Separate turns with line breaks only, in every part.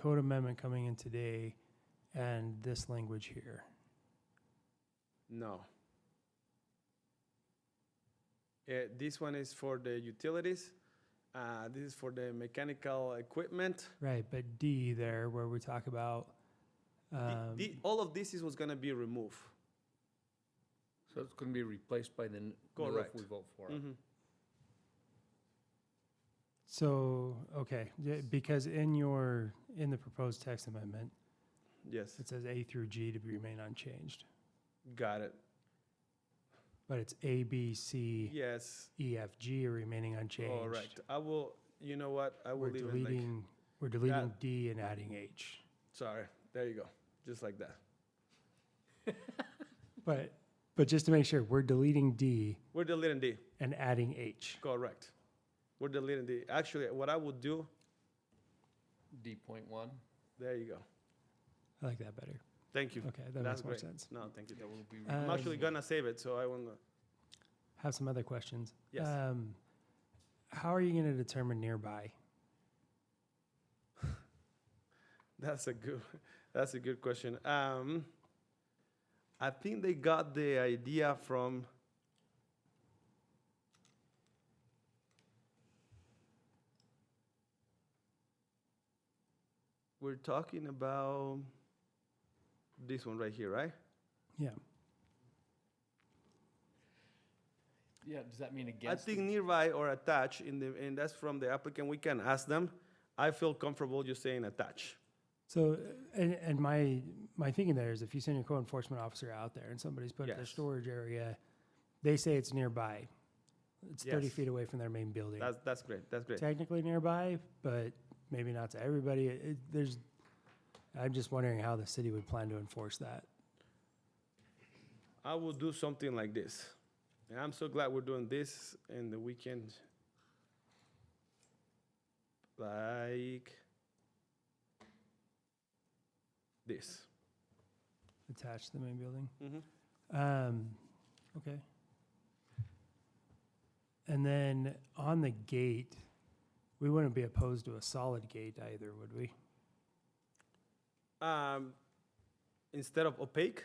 code amendment coming in today and this language here?
No. Uh, this one is for the utilities. Uh, this is for the mechanical equipment.
Right, but D there, where we talk about,
The-
um,
the- all of this is what's gonna be removed.
So it's gonna be replaced by the n- new if
Correct.
we vote for it.
Mhm.
so, okay, yeah, because in your, in the proposed text amendment,
Yes,
it says A through G to remain unchanged,
got it.
but it's A, B, C,
Yes,
E, F, G are remaining unchanged.
correct. I will, you know what, I
We're
will even like,
deleting, we're deleting D and adding H.
sorry, there you go, just like that.
But, but just to make sure, we're deleting D
We're deleting D,
and adding H.
correct. We're deleting D. Actually, what I would do,
D point one,
there you go.
I like that better.
Thank you.
Okay, that
That's
makes more
great.
sense.
No, thank you.
that will be.
I'm actually
Um,
gonna save it, so I wanna,
Have some other questions.
yes.
Um, how are you going to determine nearby?
That's a good. That's a good question. Um, I think they got the idea from. We're talking about this one right here, right?
Yeah.
Yeah, does that mean
I
against?
think nearby or attached in the, and that's from the applicant. We can ask them. I feel comfortable just saying attach.
So, uh, and, and my, my thinking there is if you send your code enforcement officer out there and somebody's put up their
Yes.
storage area, they say it's nearby. It's 30
Yes.
feet away from their main building.
That's that's great. That's great.
Technically nearby, but maybe not to everybody. It, it- there's, I'm just wondering how the city would plan to enforce that.
I will do something like this. And I'm so glad we're doing this in the weekend. Like this.
attached to the main building.
Mhm.
Um, okay. And then on the gate, we wouldn't be opposed to a solid gate either, would we?
Um, instead of opaque,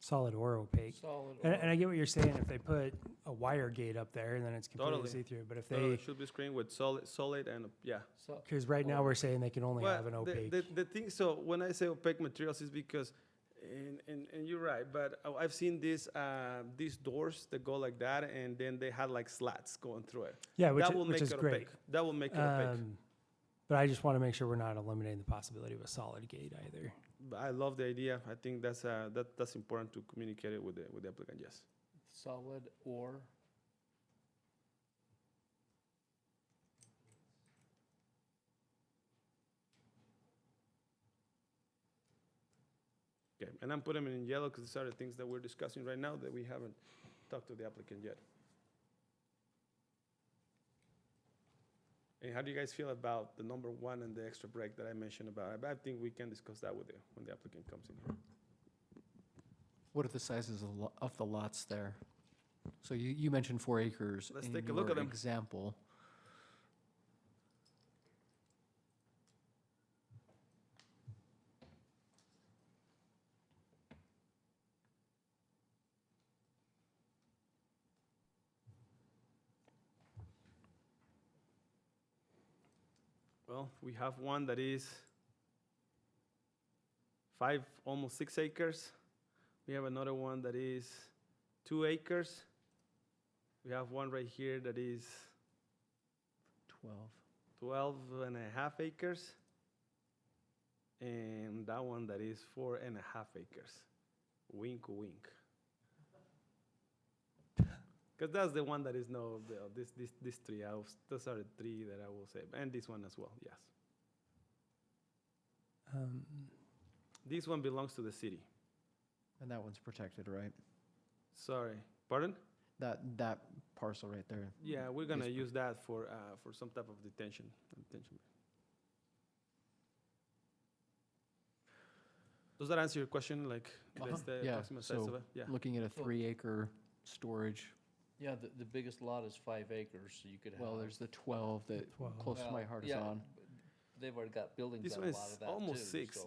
Solid or opaque.
Solid
And, and
or
I get what you're saying, if they put a wire gate up there and then it's completely
Totally.
see-through, but if
no, no,
they,
it should be screened with solid, solid and op- yeah.
so-
because right now we're saying they can only
Well,
have an
the-
opaque.
The, the thing, so when I say opaque materials is because, and, and, and you're right, but I- I've seen these, uh, these doors that go like that and then they had like slats going through it.
Yeah, which,
That
i-
will
which
make
is
it
great.
opaque. That will make it opaque.
Um, But I just want to make sure we're not eliminating the possibility of a solid gate either.
But I love the idea. I think that's uh, that that's important to communicate it with the with the applicant. Yes.
solid or
Okay. And I'm putting them in yellow because these are the things that we're discussing right now that we haven't talked to the applicant yet. And how do you guys feel about the number one and the extra break that I mentioned about? I I think we can discuss that with the, when the applicant comes in here.
What are the sizes of lo- of the lots there? So you, you mentioned four acres.
Let's
in
take a look at
your
them.
Example.
Well, we have one that is five, almost six acres. We have another one that is two acres. We have one right here that is
12.
12 and a half acres. And that one that is four and a half acres. Wink, wink. Because that's the one that is no, the- this, this, this three, I was, those are the three that I will say, and this one as well, yes.
Um,
This one belongs to the city.
And that one's protected, right?
Sorry, pardon?
That, that parcel right there.
Yeah, we're gonna
Yes,
use that for, uh, for some type of detention, detention. Does that answer your question, like,
Uh-huh.
that's the
Yeah,
approximate size of
so
it? Yeah,
Looking at a
Well-
three acre storage,
yeah, the, the biggest lot is five acres, so you could have.
well, there's the 12 that
12.
close to my
Well,
heart is
yeah,
on.
but they've already got buildings
This
on a
one
lot
is
of that too.
almost six,
so-